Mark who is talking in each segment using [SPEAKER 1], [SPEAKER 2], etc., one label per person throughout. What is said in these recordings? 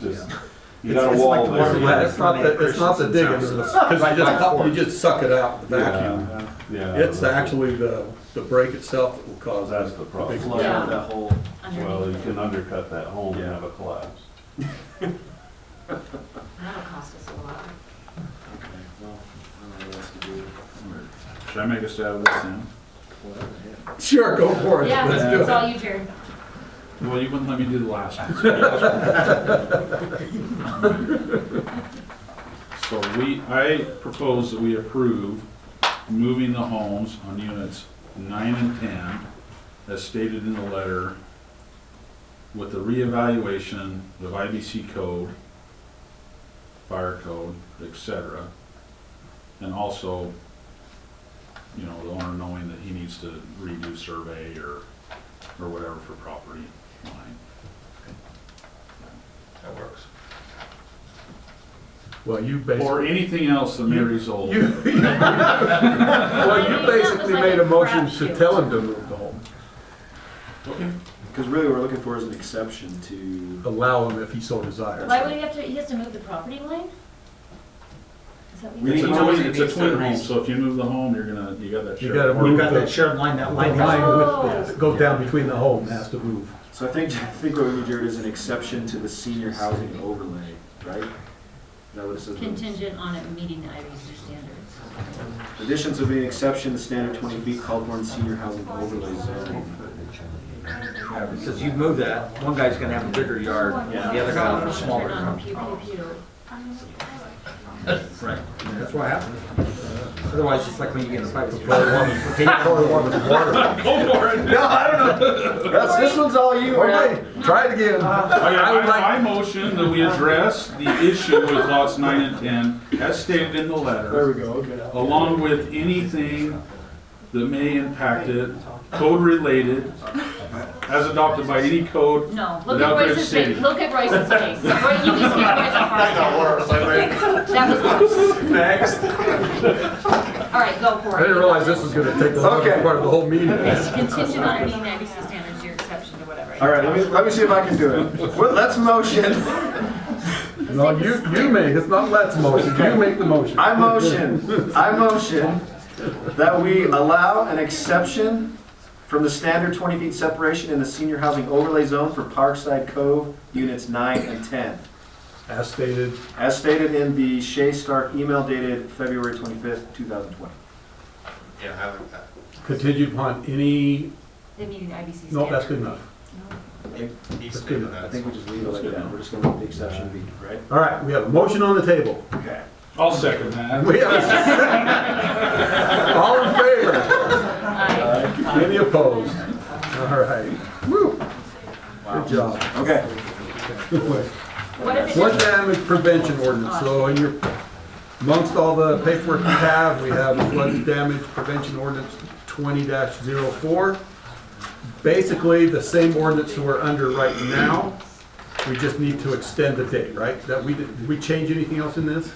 [SPEAKER 1] just,
[SPEAKER 2] Yeah.
[SPEAKER 1] you got a
[SPEAKER 3] It's- it's
[SPEAKER 1] wall
[SPEAKER 3] like the one
[SPEAKER 1] there.
[SPEAKER 3] where-
[SPEAKER 2] Yeah, it's not the, it's not the digging, it's the- cause you just, you just suck it out with the vacuum.
[SPEAKER 1] Yeah, yeah.
[SPEAKER 2] It's
[SPEAKER 1] that's-
[SPEAKER 2] actually the, the break itself that will cause that.
[SPEAKER 1] That's the problem.
[SPEAKER 2] Big
[SPEAKER 3] Flood
[SPEAKER 4] Yeah.
[SPEAKER 3] that whole,
[SPEAKER 1] Well, you
[SPEAKER 4] underneath it.
[SPEAKER 1] can undercut that home and
[SPEAKER 3] Yeah.
[SPEAKER 1] have a collapse.
[SPEAKER 4] That'll cost us a lot.
[SPEAKER 3] okay, well, I don't know what else to do.
[SPEAKER 5] Should I make a stab at this then?
[SPEAKER 3] Whatever, yeah.
[SPEAKER 2] Sure, go for it,
[SPEAKER 4] Yeah,
[SPEAKER 2] let's do
[SPEAKER 4] it's
[SPEAKER 2] it.
[SPEAKER 4] all you, Jared.
[SPEAKER 5] Well, you wouldn't let me do the last one. So we, I propose that we approve moving the homes on units nine and ten, as stated in the letter, with the reevaluation of IBC code, fire code, et cetera, and also, you know, the owner knowing that he needs to redo survey or or whatever for property line.
[SPEAKER 3] That works.
[SPEAKER 2] Well, you basically,
[SPEAKER 5] Or anything else that may result.
[SPEAKER 2] you, well,
[SPEAKER 4] That
[SPEAKER 2] you
[SPEAKER 4] was
[SPEAKER 2] basically
[SPEAKER 4] like
[SPEAKER 2] made a
[SPEAKER 4] a
[SPEAKER 2] motion to
[SPEAKER 4] crapshoot.
[SPEAKER 2] tell him to move the home,
[SPEAKER 5] Okay.
[SPEAKER 3] Because really what we're looking for is an exception to,
[SPEAKER 2] allow him if he so desires.
[SPEAKER 4] Why would he have to, he has to move the property line? Is that what
[SPEAKER 3] We
[SPEAKER 4] you
[SPEAKER 5] It's a
[SPEAKER 3] need-
[SPEAKER 4] said?
[SPEAKER 5] twin, it's a twin home, so if you move the home, you're gonna, you got that
[SPEAKER 2] You
[SPEAKER 5] shared
[SPEAKER 2] gotta
[SPEAKER 5] apartment.
[SPEAKER 2] move
[SPEAKER 6] You've got
[SPEAKER 2] the-
[SPEAKER 6] that shared line, that
[SPEAKER 2] The
[SPEAKER 6] line has
[SPEAKER 2] line
[SPEAKER 4] Oh.
[SPEAKER 2] with, go down between the home has to move.
[SPEAKER 3] so I think, I think what we need, Jared, is an exception to the senior housing overlay, right? Is that what it says?
[SPEAKER 4] Contingent on it meeting the IBC standards.
[SPEAKER 3] Additions will be an exception to standard twenty B Caldwell senior housing overlay zone.
[SPEAKER 6] Because you move that, one guy's gonna have a bigger yard, and the other guy will have a smaller
[SPEAKER 4] Turn on
[SPEAKER 6] yard.
[SPEAKER 4] the pew, pew, pew.
[SPEAKER 6] Right, and that's what happens. Otherwise, it's like when you get in a fight with a woman, take a quarter one with water.
[SPEAKER 5] Go for it.
[SPEAKER 2] No, I don't know,
[SPEAKER 3] That's, this one's all you, man.
[SPEAKER 2] okay, try it again.
[SPEAKER 4] Uh,
[SPEAKER 5] Okay,
[SPEAKER 2] I would like-
[SPEAKER 5] I, I motion that we address the issue with lots nine and ten, as stated in the
[SPEAKER 3] There
[SPEAKER 5] letter,
[SPEAKER 3] we go, okay.
[SPEAKER 5] along with anything that may impact it, code-related, as adopted by any code
[SPEAKER 4] No, look at
[SPEAKER 5] Without
[SPEAKER 4] Royce's face,
[SPEAKER 5] Grove City.
[SPEAKER 4] look at Royce's face. Roy- You just gave Royce a heart attack. That was worse. All right, go for it.
[SPEAKER 2] I didn't realize this was gonna take the longest
[SPEAKER 3] Okay.
[SPEAKER 2] part of the whole meeting.
[SPEAKER 4] Contingent on it meeting the IBC standards, your exception to whatever.
[SPEAKER 3] All right, let me, let me see if I can do it. Well, let's motion.
[SPEAKER 2] No, you, you make, it's not let's motion, you make the motion.
[SPEAKER 3] I motion, I motion that we allow an exception from the standard 20 feet separation in the senior housing overlay zone for Parkside Cove Units 9 and 10,
[SPEAKER 2] As stated,
[SPEAKER 3] as stated in the Shea Stark email dated February 25th, 2020.
[SPEAKER 2] contingent upon any,
[SPEAKER 4] The meeting the IBC standards.
[SPEAKER 2] no, that's good enough.
[SPEAKER 4] No.
[SPEAKER 2] That's good enough.
[SPEAKER 3] I think we just leave it like that, we're just gonna leave the exception be, right?
[SPEAKER 2] All right, we have a motion on the table.
[SPEAKER 3] Okay.
[SPEAKER 5] I'll second that.
[SPEAKER 2] We have a second. All in favor?
[SPEAKER 4] Aye.
[SPEAKER 2] Any opposed? All right. Woo. Good job.
[SPEAKER 3] Okay.
[SPEAKER 4] What if it doesn't-
[SPEAKER 2] Flood damage prevention ordinance, so in your, amongst all the paperwork you have, we have flood damage prevention ordinance twenty 4 Basically, the same ordinance we're under right now, we just need to extend the date, right? That we, did did we change anything else in this?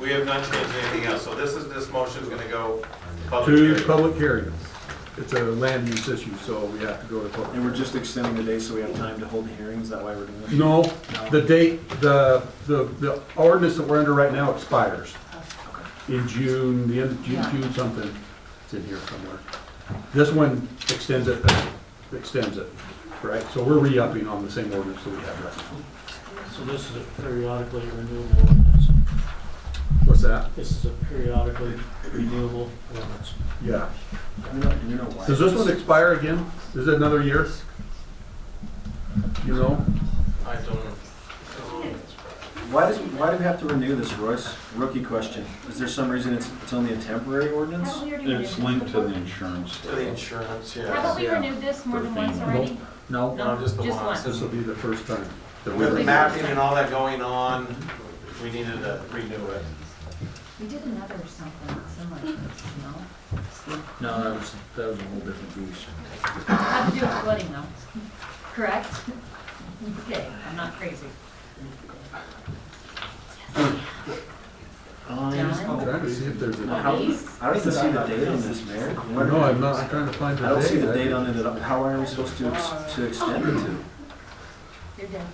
[SPEAKER 7] We have not changed anything else, so this is, this motion's gonna go public
[SPEAKER 2] To
[SPEAKER 7] hearing.
[SPEAKER 2] public hearings. It's a land use issue, so we have to go to public.
[SPEAKER 3] And we're just extending the day so we have time to hold the hearings, that why we're doing this?
[SPEAKER 2] No, the date, the, the, the ordinance that we're under right now expires in June, the end of June,
[SPEAKER 4] Yeah.
[SPEAKER 2] June something. It's in here somewhere. This one extends it, extends it, right? So we're re-upping on the same ordinance that we have right now.
[SPEAKER 8] So this is a periodically renewable ordinance.
[SPEAKER 2] What's that?
[SPEAKER 8] This is a periodically renewable ordinance.
[SPEAKER 2] Yeah.
[SPEAKER 3] You know- you know why.
[SPEAKER 2] Does this one expire again? Is it another year? You know?
[SPEAKER 7] I don't know.
[SPEAKER 3] Why does, why do we have to renew this, Royce? Rookie question. Is there some reason it's, it's only a temporary ordinance?
[SPEAKER 4] Haven't we already renewed
[SPEAKER 5] It's
[SPEAKER 4] this
[SPEAKER 5] linked to
[SPEAKER 4] before?
[SPEAKER 5] the insurance.
[SPEAKER 7] To the insurance, yeah.
[SPEAKER 4] Haven't we renewed this more than once already?
[SPEAKER 6] No,
[SPEAKER 7] No, just the
[SPEAKER 4] Just
[SPEAKER 7] one.
[SPEAKER 4] once.
[SPEAKER 2] This will be the first time. that we-
[SPEAKER 7] With mapping and all that going on, we needed to renew it.
[SPEAKER 4] We did another something similar, to this, no?
[SPEAKER 6] no, that was, that was a whole different beast.
[SPEAKER 4] Had to do with flooding though, correct? Okay, I'm not crazy.
[SPEAKER 3] Um,
[SPEAKER 2] I'm trying to see if there's a.
[SPEAKER 3] How-
[SPEAKER 4] Please.
[SPEAKER 3] I don't even see the date on this, Mayor.
[SPEAKER 2] No, I'm not, I'm trying to find the
[SPEAKER 3] I
[SPEAKER 2] date.
[SPEAKER 3] don't see the date on it at all. How are we supposed to, ex- to extend it to?
[SPEAKER 4] You're dead.